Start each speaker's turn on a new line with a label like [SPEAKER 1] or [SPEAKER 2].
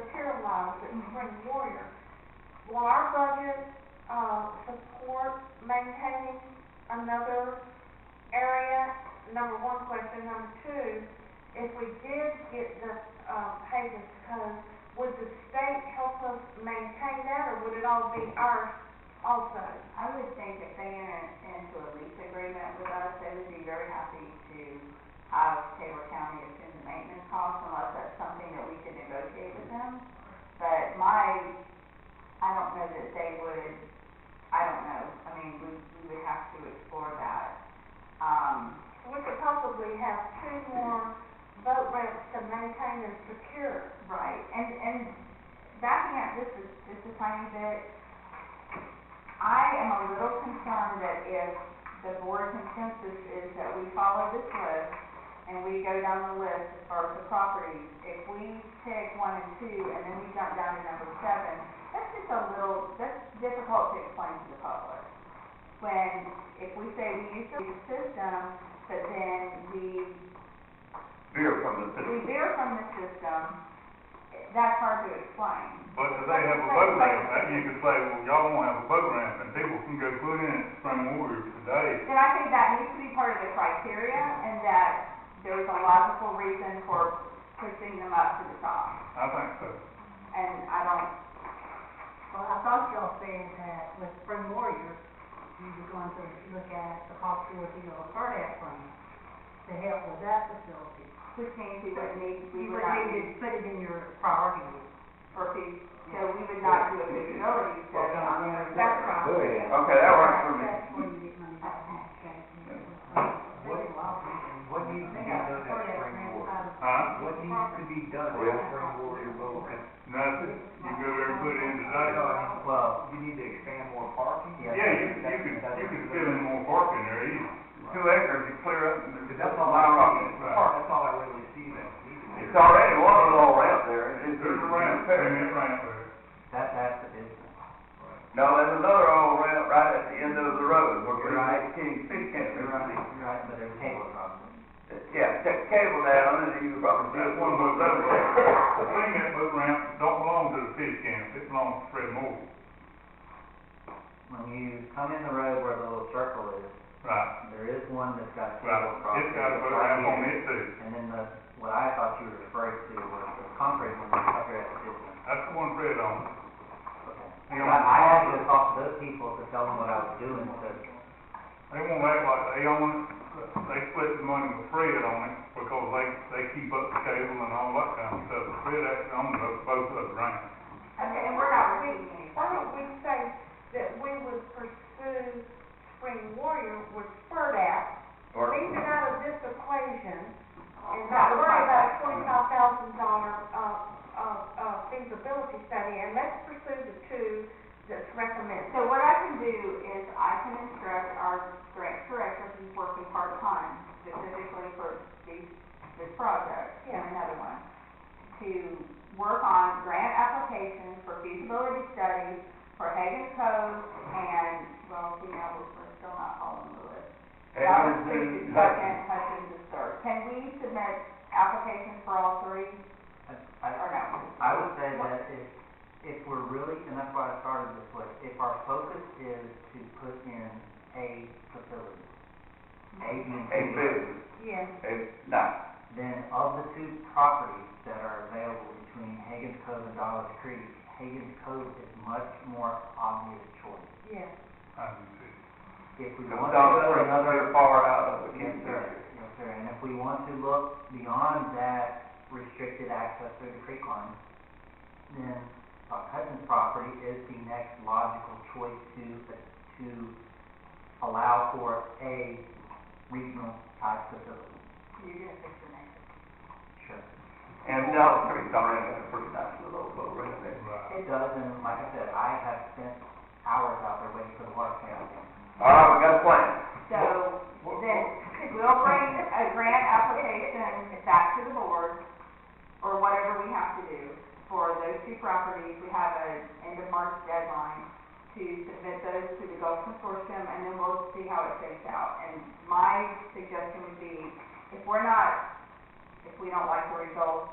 [SPEAKER 1] uh, the spring warrior. Will our budget, uh, support maintaining another area? Number one question. Number two, if we did get the, uh, paving code, would the state help us maintain that, or would it all be ours also?
[SPEAKER 2] I would think if they enter into a lease agreement with us, they would be very happy to have Taylor County assume the maintenance costs unless that's something that we could negotiate with them. But my, I don't know that they would, I don't know, I mean, we, we would have to explore that. Um,
[SPEAKER 1] We could possibly have two more boat ramps to maintain and secure.
[SPEAKER 2] Right, and, and backing up just a, just a tiny bit, I am a little concerned that if the board consensus is that we follow this list and we go down the list of the properties, if we pick one and two and then we jump down to number seven, that's just a little, that's difficult to explain to the public. When, if we say we use the system, but then we
[SPEAKER 3] beer from the
[SPEAKER 2] we
[SPEAKER 3] city,
[SPEAKER 2] veer from the system, that's hard to explain.
[SPEAKER 3] but if they have a boat ramp, that you could say, well, y'all won't have a boat ramp, and people can go put in at Spring Warrior today.
[SPEAKER 2] Then I think that needs to be part of the criteria, and that there's a logical reason for pushing them up to the top,
[SPEAKER 3] I think so.
[SPEAKER 2] and I don't,
[SPEAKER 4] Well, I thought y'all said that with Spring Warrior, you were going to look at the possibility of a cardiac plan to help with that facility.
[SPEAKER 2] which means we would need, we
[SPEAKER 4] You
[SPEAKER 2] would
[SPEAKER 4] would
[SPEAKER 2] not
[SPEAKER 4] need to
[SPEAKER 2] do,
[SPEAKER 4] put it in your priority list.
[SPEAKER 2] for fee, so we would not do a feasibility study on there.
[SPEAKER 4] That's right.
[SPEAKER 3] Okay, that works for me.
[SPEAKER 4] That's where you get money back from the state.
[SPEAKER 5] What, what needs to be done at Spring Ward?
[SPEAKER 3] Huh?
[SPEAKER 5] What needs to be done at Spring Ward or Bow Ramp?
[SPEAKER 3] Nothing, you go there and put in today.
[SPEAKER 5] I know, I mean, well, you need to expand more parking.
[SPEAKER 3] Yeah, you, you could, you could fill in more parking there, you, two acres, you clear up. and there's
[SPEAKER 5] Cause that's
[SPEAKER 3] a
[SPEAKER 5] all
[SPEAKER 3] lot
[SPEAKER 5] I
[SPEAKER 3] of it.
[SPEAKER 5] see, that's all I really see that. we can do.
[SPEAKER 6] It's already one little ramp there, it's,
[SPEAKER 3] There's a ramp, there, and that ramp there.
[SPEAKER 5] That, that's the business.
[SPEAKER 6] no, there's another old ramp right at the end of the road, where
[SPEAKER 5] You're right.
[SPEAKER 6] King Fish Camp is running.
[SPEAKER 5] You're Right, but there's cable across it.
[SPEAKER 6] Yeah, check the cable down, and you probably see
[SPEAKER 3] That's
[SPEAKER 6] one
[SPEAKER 3] one
[SPEAKER 6] of
[SPEAKER 3] boat ramp.
[SPEAKER 6] those other
[SPEAKER 3] The
[SPEAKER 6] ramps.
[SPEAKER 3] thing that boat ramp don't belong to the fish camp, it belongs to Fred Moore.
[SPEAKER 5] When you come in the road where the little circle is,
[SPEAKER 3] Right,
[SPEAKER 5] there is one that's got a
[SPEAKER 3] right.
[SPEAKER 5] cable across
[SPEAKER 3] It's
[SPEAKER 5] it.
[SPEAKER 3] got a boat ramp on it too.
[SPEAKER 5] And then the, what I thought you were referring to was the concrete one that's up here at the business.
[SPEAKER 3] That's the one Fred owns.
[SPEAKER 5] I I had to talk to those people to tell them what I was doing, so,
[SPEAKER 3] They won't act like they own it, they split the money with Fred on it, because they, they keep up the cable and all that kind of stuff. Fred actually owns both, both of the ramps.
[SPEAKER 2] Okay, and we're not reading any.
[SPEAKER 1] Why don't we say that we would pursue Spring Warrior with FERDAP,
[SPEAKER 6] Or-
[SPEAKER 1] leave it out of this equation, and not worry about a twenty-five thousand dollar, uh, uh, uh, feasibility study, and let's pursue the two that's recommended.
[SPEAKER 2] So what I can do is I can instruct our grant director who's working part-time specifically for these, this project and
[SPEAKER 1] Yeah.
[SPEAKER 2] another one, to work on grant applications for feasibility studies for Hagan Cove and, well, you know, we're we're still not following the list. Robin Creek is second, Hutchins is third. Can we submit applications for all three
[SPEAKER 5] I,
[SPEAKER 2] or no?
[SPEAKER 5] I would say that if, if we're really, and that's why I started this way, if our focus is to put in a facility, a being
[SPEAKER 6] A
[SPEAKER 5] two,
[SPEAKER 6] business,
[SPEAKER 1] Yes.
[SPEAKER 6] a, no,
[SPEAKER 5] then of the two properties that are available between Hagen's Cove and Dollar Creek, Hagen's Cove is much more obvious choice.
[SPEAKER 1] Yes.
[SPEAKER 3] I do too.
[SPEAKER 5] If we
[SPEAKER 6] because
[SPEAKER 5] want to
[SPEAKER 6] all
[SPEAKER 5] look
[SPEAKER 6] the other
[SPEAKER 5] for
[SPEAKER 6] ones
[SPEAKER 5] another
[SPEAKER 6] are far out of the
[SPEAKER 5] Yes,
[SPEAKER 6] King
[SPEAKER 5] sir, yes, sir, and if we want to look beyond that restricted access through the creek line, then uh, Hudson's property is the next logical choice to, to allow for a regional type facility.
[SPEAKER 2] You're gonna fix the name.
[SPEAKER 5] Sure.
[SPEAKER 6] And Dollar Creek's already got a pretty nice little boat ramp there.
[SPEAKER 3] Right.
[SPEAKER 5] It does, and like I said, I have spent hours out there waiting for the water tower.
[SPEAKER 6] All right, we got a plan.
[SPEAKER 2] So,
[SPEAKER 3] What-
[SPEAKER 2] then
[SPEAKER 3] what-
[SPEAKER 2] we'll bring a grant application back to the board, or whatever we have to do for those two properties. We have an end of March deadline to submit those to the Gulf Consortium, and then we'll see how it shakes out. And my suggestion would be, if we're not, if we don't like the results